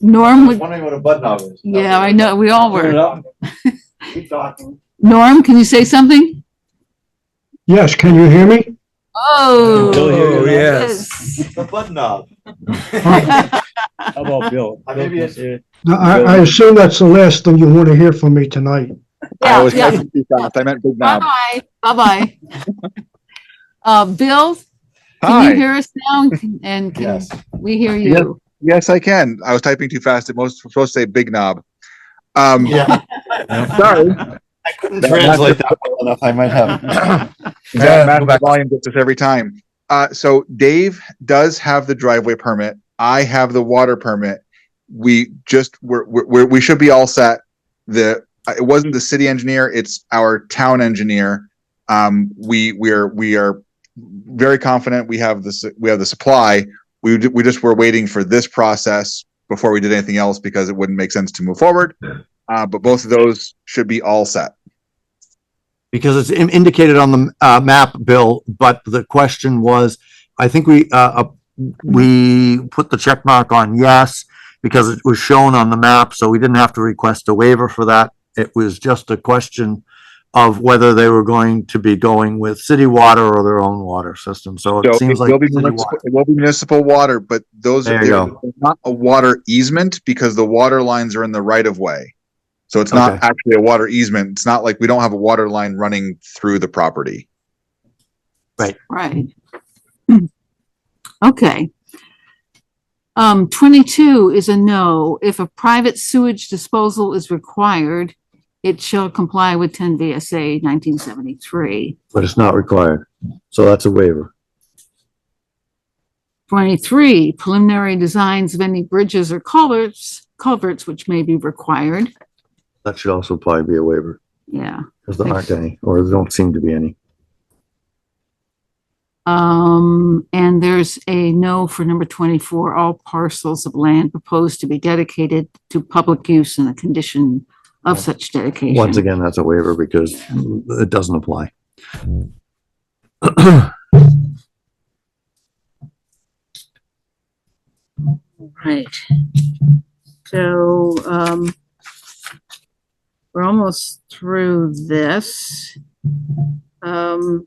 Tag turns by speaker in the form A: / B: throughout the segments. A: Norm
B: I was
A: was,
B: wondering what a bud knob is.
A: yeah, I know, we all
B: Turn
A: were.
B: it up. Keep talking.
A: Norm, can you say something?
C: Yes, can you hear me?
A: Oh.
D: Bill here,
C: Oh,
A: yes.
B: The bud knob.
D: How about Bill?
B: I maybe it's-
C: No, I, I assume that's the last thing you want to hear from me tonight.
E: I
A: Yeah,
E: was
A: yeah.
E: too fast. I meant big knob.
A: Bye-bye, bye-bye. Uh, Bill, can you
E: Hi.
A: hear us now? And can
B: Yes.
A: we hear you?
E: Yes, I can. I was typing too fast. It was supposed to say big knob. Um,
B: Yeah.
E: sorry.
B: I couldn't translate that well enough. I might have.
E: Yeah, the volume gets us every time. Uh, so Dave does have the driveway permit. I have the water permit. We just we're, we're, we're we should be all set. The uh, it wasn't the city engineer; it's our town engineer. Um, we we are we are very confident. We have this we have the supply. We d- we just were waiting for this process before we did anything else because it wouldn't make sense to move forward. Uh, but both of those should be all set.
F: because it's in- indicated on the uh, map, Bill, but the question was, I think we, uh, uh, we put the check mark on yes because it was shown on the map, so we didn't have to request a waiver for that. It was just a question of whether they were going to be going with city water or their own water system, so
E: So
F: it seems like.
E: will be
F: city
E: municipal,
F: water.
E: it will be municipal water, but those
F: There
E: are
F: you
E: they're not a water easement because the water lines are in the right of way. So it's not
F: Okay.
E: actually a water easement. It's not like we don't have a water line running through the property.
A: Right. Okay. Um, twenty-two is a no. If a private sewage disposal is required, it shall comply with ten VSA nineteen seventy-three.
F: But it's not required, so that's a waiver.
A: Twenty-three, preliminary designs of any bridges or culverts, culverts which may be required.
F: That should also probably be a waiver,
A: Yeah.
F: because there aren't any, or there don't seem to be any.
A: Um, and there's a no for number twenty-four, all parcels of land proposed to be dedicated to public use and the condition of such dedication.
F: Once again, that's a waiver because it doesn't apply.
A: Right. So, um, we're almost through this. Um,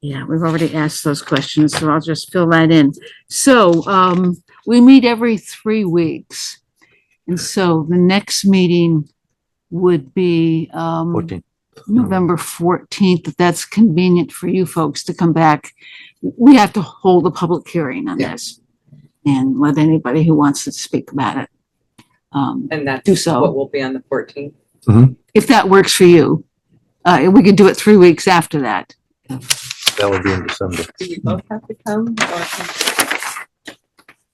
A: yeah, we've already asked those questions, so I'll just fill that in. So, um, we meet every three weeks. And so the next meeting would be, um,
F: Fourteen.
A: November fourteenth, if that's convenient for you folks to come back. We have to hold a public hearing on this and let anybody who wants to speak about it. Um,
G: And that's
A: Do so.
G: what will be on the fourteenth.
A: if that works for you, uh, we could do it three weeks after that.
F: That would be in December.
G: Do we both have to come or can-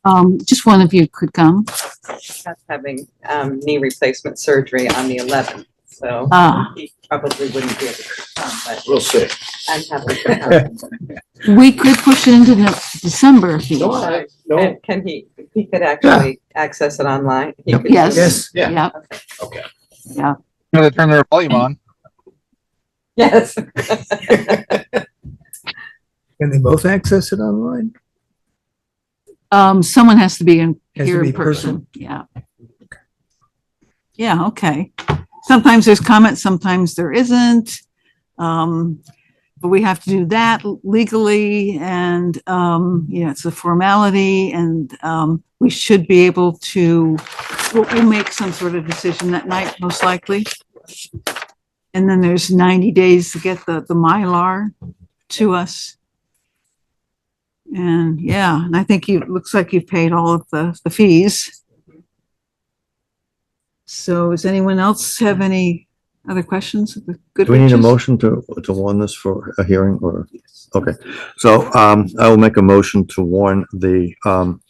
A: Um, just one of you could come.
G: Scott's having um knee replacement surgery on the eleventh, so
A: Uh,
G: he probably wouldn't be able to come, but
B: We'll see.
G: I'm happy to
A: we could push it into no- December if you
B: No,
A: want.
B: I,
G: come.
B: no,
G: And can he, he could actually access it online? He could
A: Yes.
G: do it.
A: Yes.
B: yeah.
A: Yep.
B: Okay.
A: Yeah,
E: You know, they turn their volume on.
G: Yes.
D: Can they both access it online?
A: um, someone has to be in,
D: Has to
A: here in
D: be
A: person, yeah. Yeah, okay. Sometimes there's comments, sometimes there isn't. Um, but we have to do that legally and, um, you know, it's a formality and, um, we should be able to, we'll, we'll make some sort of decision that night, most likely. And then there's ninety days to get the, the Mylar to us. And yeah, and I think you, it looks like you've paid all of the, the fees. So does anyone else have any other questions? of the good
F: Do we need a
A: witches?
F: motion to, to warn this for a hearing or? Okay, so, um, I will make a motion to warn the, um,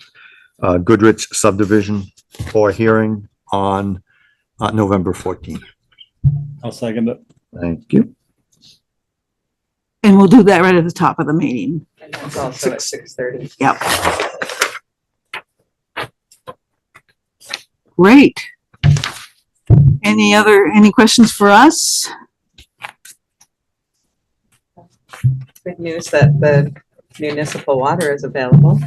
F: uh, Goodrich subdivision for hearing on, uh, November fourteenth.
D: I'll second it.
F: Thank you.
A: And we'll do that right at the top of the meeting.
G: And that's also at six thirty.
A: Great. Any other, any questions for us?
G: Good news that the municipal water is available.